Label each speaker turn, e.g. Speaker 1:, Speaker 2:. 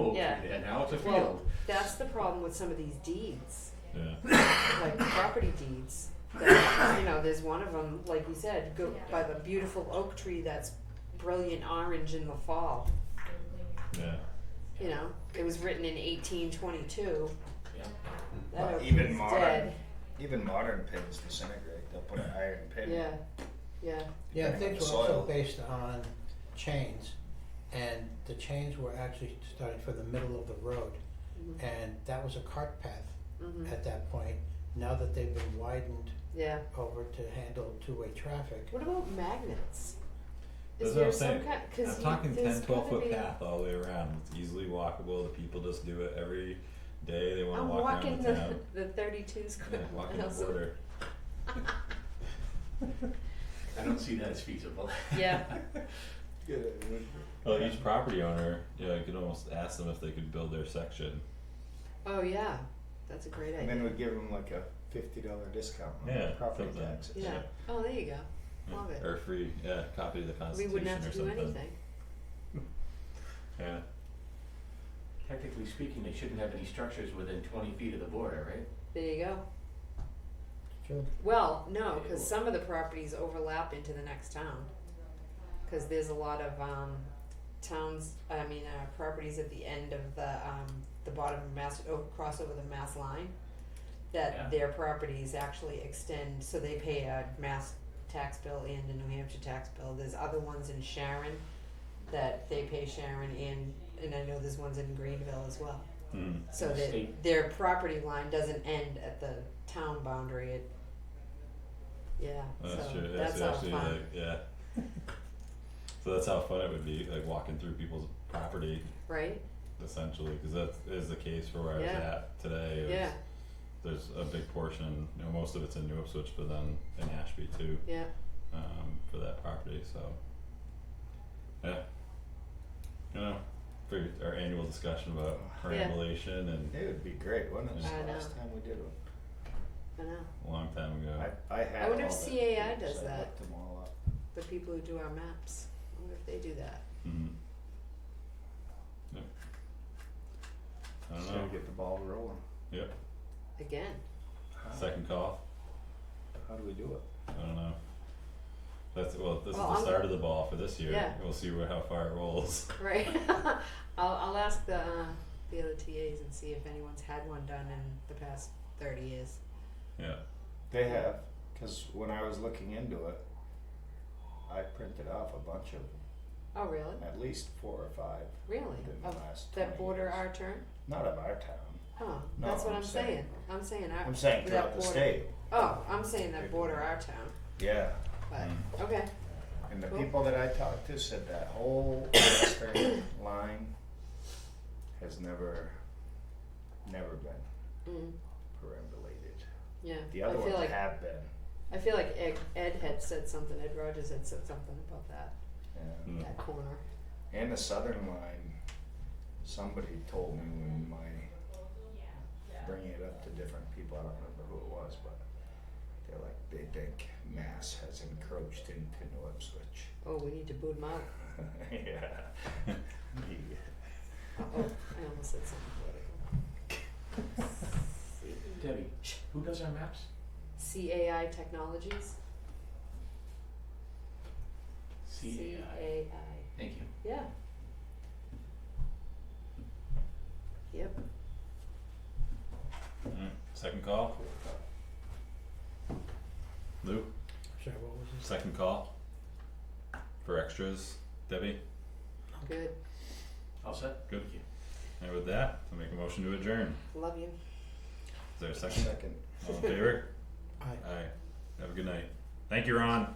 Speaker 1: that.
Speaker 2: and now it's a
Speaker 1: Well,
Speaker 2: field.
Speaker 1: that's the problem with some of these deeds,
Speaker 2: Yeah,
Speaker 1: like property deeds. that, you know, there's one of them, like you said, go by the beautiful oak tree that's brilliant orange in the fall.
Speaker 2: yeah.
Speaker 1: You know, it was written in 1822.
Speaker 2: Yeah.
Speaker 1: That
Speaker 3: Well,
Speaker 1: oak
Speaker 3: even
Speaker 1: tree's
Speaker 3: modern-
Speaker 1: dead.
Speaker 3: Even modern pins disintegrate. They'll put an iron pin.
Speaker 1: Yeah, yeah,
Speaker 4: Yeah,
Speaker 3: depending on
Speaker 4: things
Speaker 3: the
Speaker 4: were also
Speaker 3: soil.
Speaker 4: based on chains, and the chains were actually starting from the middle of the road.
Speaker 1: Mhm.
Speaker 4: And that was a cart path
Speaker 1: hmm
Speaker 4: at that point, now that they've been widened
Speaker 1: yeah.
Speaker 4: over to handle two-way traffic.
Speaker 1: What about magnets? Is
Speaker 2: That's
Speaker 1: there
Speaker 2: what I'm
Speaker 1: some
Speaker 2: saying.
Speaker 1: kind? Because
Speaker 2: I'm talking 10, 12 foot
Speaker 1: be,
Speaker 2: path all the way around. It's easily walkable. The people just do it every day. They want to
Speaker 1: I'm
Speaker 2: walk
Speaker 1: walking
Speaker 2: around
Speaker 1: the,
Speaker 2: the town.
Speaker 1: the 32 square
Speaker 2: Yeah, walking
Speaker 1: miles
Speaker 2: the
Speaker 1: of-
Speaker 2: border.
Speaker 5: I don't see that as feasible.
Speaker 1: Yeah.
Speaker 2: Well, each property owner, yeah, you could almost ask them if they could build their section.
Speaker 1: Oh yeah, that's a great
Speaker 3: And
Speaker 1: idea.
Speaker 3: then we give them like a fifty dollar discount on
Speaker 2: Yeah,
Speaker 3: property
Speaker 2: something.
Speaker 3: taxes.
Speaker 1: Yeah. Oh, there you go.
Speaker 2: Yeah,
Speaker 1: Love it.
Speaker 2: Or free, yeah, copy of the
Speaker 1: We
Speaker 2: Constitution
Speaker 1: wouldn't have
Speaker 2: or
Speaker 1: to do
Speaker 2: something.
Speaker 1: anything.
Speaker 2: Yeah.
Speaker 5: Technically speaking, they shouldn't have any structures within twenty feet of the border, right?
Speaker 1: There you go.
Speaker 4: True.
Speaker 1: Well, no, because some of the properties overlap into the next town. Because there's a lot of um, towns, I mean, uh, properties at the end of the um, the bottom of Mass, oh, cross over the Mass line, that
Speaker 5: Yeah.
Speaker 1: their properties actually extend, so they pay a Mass tax bill and a New Hampshire tax bill. There's other ones in Sharon that they pay Sharon and, and I know there's ones in Greenville as well.
Speaker 2: Hmm.
Speaker 1: So
Speaker 5: The
Speaker 1: that
Speaker 5: state.
Speaker 1: their property line doesn't end at the town boundary, it. Yeah,
Speaker 2: Oh, That's
Speaker 1: so
Speaker 2: true.
Speaker 1: that's
Speaker 2: That's
Speaker 1: how
Speaker 2: actually like,
Speaker 1: fun,
Speaker 2: yeah. so that's how fun it would be, like walking through people's property,
Speaker 1: right?
Speaker 2: essentially, because that is the case for where I was
Speaker 1: Yeah.
Speaker 2: at today. It was-
Speaker 1: Yeah,
Speaker 2: There's a big portion, you know, most of it's in New Ipswich, but then in Ashby too,
Speaker 1: yeah,
Speaker 2: um, for that property. So, yeah. You know, for our annual discussion about
Speaker 3: Yeah.
Speaker 2: perambulation and
Speaker 3: It would be great, wouldn't it?
Speaker 1: I
Speaker 3: It's the
Speaker 1: know.
Speaker 3: Last time we did one.
Speaker 1: I know,
Speaker 2: a long time ago.
Speaker 3: I, I had
Speaker 1: I wonder
Speaker 3: all
Speaker 1: if
Speaker 3: the
Speaker 1: CAI
Speaker 3: pins.
Speaker 1: does
Speaker 3: I
Speaker 1: that.
Speaker 3: looked them all up.
Speaker 1: the people who do our maps, I wonder if they do that.
Speaker 2: Mhm. Yeah. I
Speaker 3: Just
Speaker 2: don't
Speaker 3: gotta
Speaker 2: know.
Speaker 3: get the ball rolling.
Speaker 2: Yep.
Speaker 1: Again,
Speaker 3: How,
Speaker 2: Second call.
Speaker 3: how do we do it?
Speaker 2: I don't know. That's well. This
Speaker 1: Well,
Speaker 2: is
Speaker 1: I'm-
Speaker 2: the start of the ball for this year.
Speaker 1: Yeah.
Speaker 2: We'll see where, how far it rolls.
Speaker 1: right? I'll, I'll ask the, uh, the other TAs and see if anyone's had one done in the past thirty years.
Speaker 2: Yeah.
Speaker 3: They have, because when I was looking into it, I printed off a bunch of them,
Speaker 1: Oh, really?
Speaker 3: at least four or five
Speaker 1: Really?
Speaker 3: in the
Speaker 1: Of
Speaker 3: last 20
Speaker 1: that border
Speaker 3: years.
Speaker 1: our turn?
Speaker 3: Not of our town.
Speaker 1: Huh,
Speaker 3: No,
Speaker 1: that's what
Speaker 3: I'm
Speaker 1: I'm saying,
Speaker 3: saying-
Speaker 1: I'm saying our,
Speaker 3: I'm saying
Speaker 1: that
Speaker 3: throughout the
Speaker 1: Uh, border-
Speaker 3: state.
Speaker 1: Oh, I'm saying that border our town,
Speaker 3: Yeah.
Speaker 2: Mm.
Speaker 1: but,
Speaker 3: Mm.
Speaker 1: okay,
Speaker 3: And the
Speaker 1: Cool.
Speaker 3: people that I talked to said that whole western line has never, never been
Speaker 1: mm,
Speaker 3: perambulated.
Speaker 1: yeah,
Speaker 3: The
Speaker 1: I
Speaker 3: other
Speaker 1: feel
Speaker 3: ones
Speaker 1: like
Speaker 3: have been.
Speaker 1: I feel like Ed, Ed had said something, Ed Rogers had said something about that,
Speaker 3: Yeah.
Speaker 2: Mm.
Speaker 1: that corner.
Speaker 3: And the southern line, somebody told me when my bringing it up to different people, I don't remember who it was, but they're like they think mass has encroached into New Ipswich.
Speaker 1: Oh, we need to boot him out.
Speaker 3: yeah. yeah.
Speaker 1: Oh, I almost said something political.
Speaker 5: Debbie, who does our maps?
Speaker 1: CAI Technologies?
Speaker 5: CAI.
Speaker 1: CAI.
Speaker 5: Thank you.
Speaker 1: yeah. Yep,
Speaker 2: Alright, Second call. Lou.
Speaker 4: Sorry, what was this?
Speaker 2: Second call. For extras, Debbie.
Speaker 1: good,
Speaker 5: All set?
Speaker 2: Good.
Speaker 5: Thank you.
Speaker 2: And with that, I'll make a motion to adjourn.
Speaker 1: love you.
Speaker 2: Is there a second?
Speaker 3: Second.
Speaker 2: All in favor?
Speaker 4: Aye.
Speaker 2: Aye. Have a good night. Thank you, Ron.